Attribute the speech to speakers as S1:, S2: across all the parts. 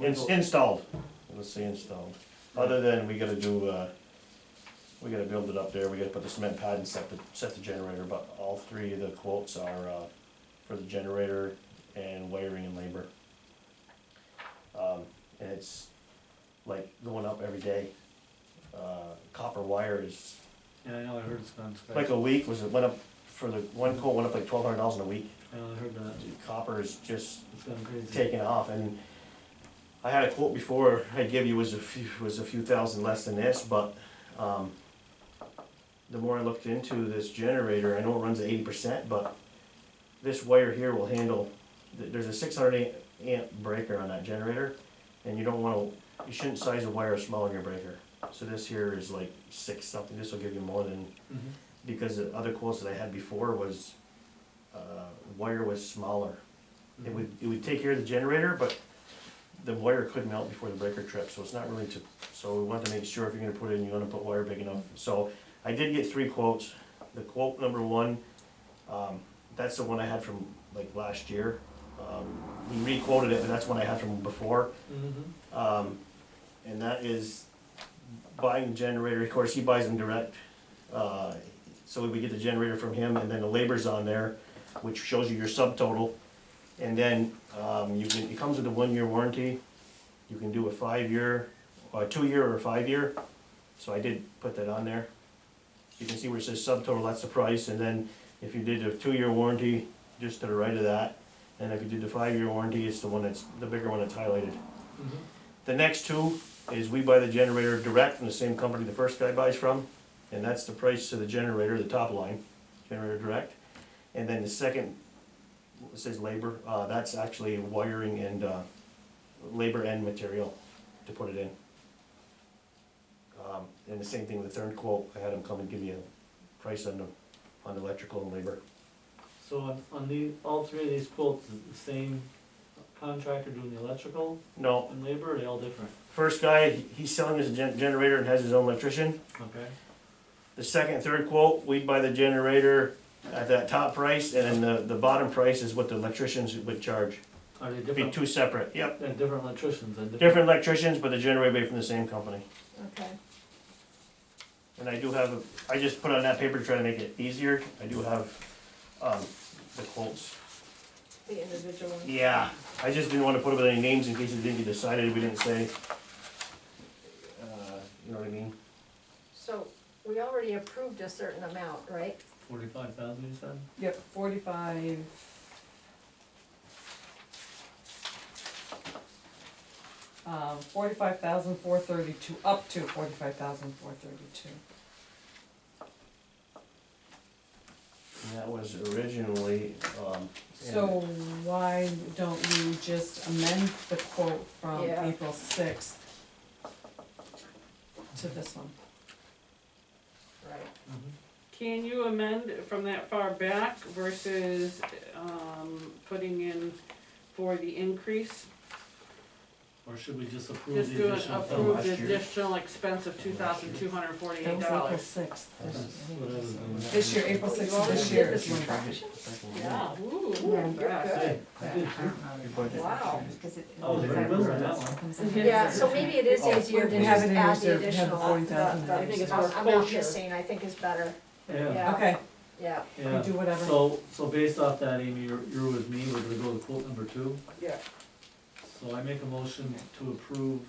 S1: It's uh, installed, let's say installed, other than we gotta do, uh, we gotta build it up there, we gotta put the cement pad and set the, set the generator, but all three of the quotes are, uh, for the generator and wiring and labor. Um, and it's like going up every day, uh, copper wire is,
S2: Yeah, I know, I heard it's gone sky.
S1: like a week, was it went up, for the, one quote went up like twelve hundred dollars in a week,
S2: I know, I heard that,
S1: copper is just
S2: it's gone crazy.
S1: taken off and I had a quote before I give you was a few, was a few thousand less than this, but, um, the more I looked into this generator, I know it runs at eighty percent, but this wire here will handle, th- there's a six hundred amp breaker on that generator, and you don't wanna, you shouldn't size a wire smaller than your breaker. So this here is like six something, this will give you more than
S2: Mhm.
S1: because the other quotes that I had before was, uh, wire was smaller. It would, it would take care of the generator, but the wire could melt before the breaker tripped, so it's not really to, so we want to make sure if you're gonna put it in, you wanna put wire big enough. So I did get three quotes, the quote number one, um, that's the one I had from like last year. Um, he re-quoted it, but that's one I had from before.
S2: Mhm.
S1: Um, and that is buying the generator, of course, he buys them direct. Uh, so we get the generator from him and then the labor's on there, which shows you your subtotal. And then, um, you can, it comes with a one-year warranty. You can do a five-year, or a two-year or a five-year. So I did put that on there. You can see where it says subtotal, that's the price, and then if you did a two-year warranty, just to the right of that. And if you did the five-year warranty, it's the one that's, the bigger one that's highlighted.
S2: Mhm.
S1: The next two is we buy the generator direct from the same company the first guy buys from, and that's the price of the generator, the top line, generator direct. And then the second, it says labor, uh, that's actually wiring and, uh, labor and material to put it in. Um, and the same thing with the third quote, I had him come and give me a price on the, on the electrical and labor.
S2: So on, on the, all three of these quotes, is it the same contractor doing the electrical
S1: No,
S2: and labor, or are they all different?
S1: first guy, he- he's selling his gen- generator and has his own electrician.
S2: Okay,
S1: The second, third quote, we buy the generator at that top price, and then the, the bottom price is what the electricians would charge.
S2: are they
S1: It'd be
S2: different,
S1: two separate, yep.
S2: they're different electricians and different?
S1: Different electricians, but the generator would be from the same company.
S3: Okay,
S1: And I do have, a- I just put on that paper to try to make it easier, I do have, um, the quotes.
S3: the individual one.
S1: Yeah, I just didn't wanna put up any names in case it didn't get decided, we didn't say. Uh, you know what I mean?
S3: So we already approved a certain amount, right?
S2: Forty-five thousand, you said?
S4: Yep, forty-five. Um, forty-five thousand four thirty-two, up to forty-five thousand four thirty-two.
S1: And that was originally, um,
S4: So why don't you just amend the quote from
S3: Yeah.
S4: April sixth to this one?
S3: Right.
S5: Can you amend from that far back versus, um, putting in for the increase?
S2: Or should we just approve
S5: Just
S2: the
S5: do an
S2: additional?
S1: approve.
S5: approved
S1: last year.
S5: additional expense of two thousand two hundred
S4: That
S5: forty-eight
S4: was April
S5: dollars.
S4: sixth.
S2: What is it?
S4: This year, April
S3: Oh, you
S4: sixth of
S3: already
S4: this
S3: did
S4: year
S3: this
S4: is when.
S3: one.
S5: Yeah, ooh,
S3: Yeah, you're
S5: fast.
S3: good.
S2: Hey, I did,
S3: Wow.
S2: I was very good on Oh, that one.
S3: Yeah, so maybe it is
S1: Oh.
S3: easier
S4: We
S3: to
S4: have
S3: just
S4: it in
S3: add the
S4: reserve. We have
S3: additional.
S4: the 40,000
S3: the- the
S4: I think
S5: it's more
S3: Amount
S5: kosher.
S3: missing, I think is better,
S2: Yeah,
S3: Yeah.
S4: Okay,
S3: yeah.
S4: we
S2: yeah.
S4: do whatever.
S2: So, so based off that, Amy, you're, you're with me, we're gonna go to quote number two.
S5: Yeah.
S2: So I make a motion to approve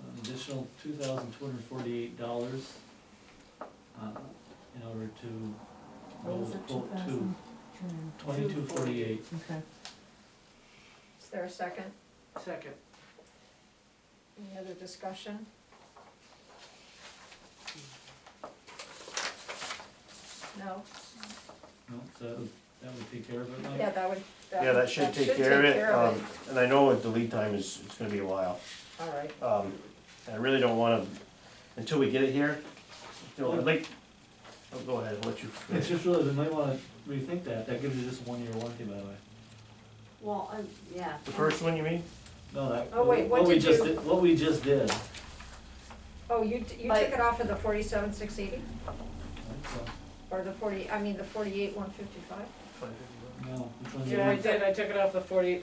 S2: an additional two thousand two hundred forty-eight dollars, uh, in order to go
S4: What was
S2: with
S4: it,
S2: quote two,
S4: 2,000? Hmm,
S2: twenty-two forty-eight.
S4: Okay.
S3: Is there a second?
S5: Second.
S3: Any other discussion? No?
S2: No, so that would- that would take care of it, Mike?
S3: Yeah, that would, that
S1: Um, yeah, that
S3: would-
S1: should take care of it, um, and I know the lead time is, it's gonna be a while.
S3: All right,
S1: Um, I really don't wanna, until we get it here, you know, I'd like, oh, go ahead, I'll let you.
S2: It's just really, we might wanna rethink that, that gives you just one year warranty, by the way.
S5: Well, yeah.
S1: The first one, you mean?
S2: No, that,
S3: Oh, wait, what
S2: what we
S3: did
S2: just
S3: you-
S2: did, what we just did.
S3: oh, you, t- you
S5: Like-
S3: took it off of the forty-seven, six eighty,
S2: So,
S3: or the forty, I mean, the forty-eight, one fifty-five?
S2: No, which one did you?
S5: Yeah, I did, I took it off the forty,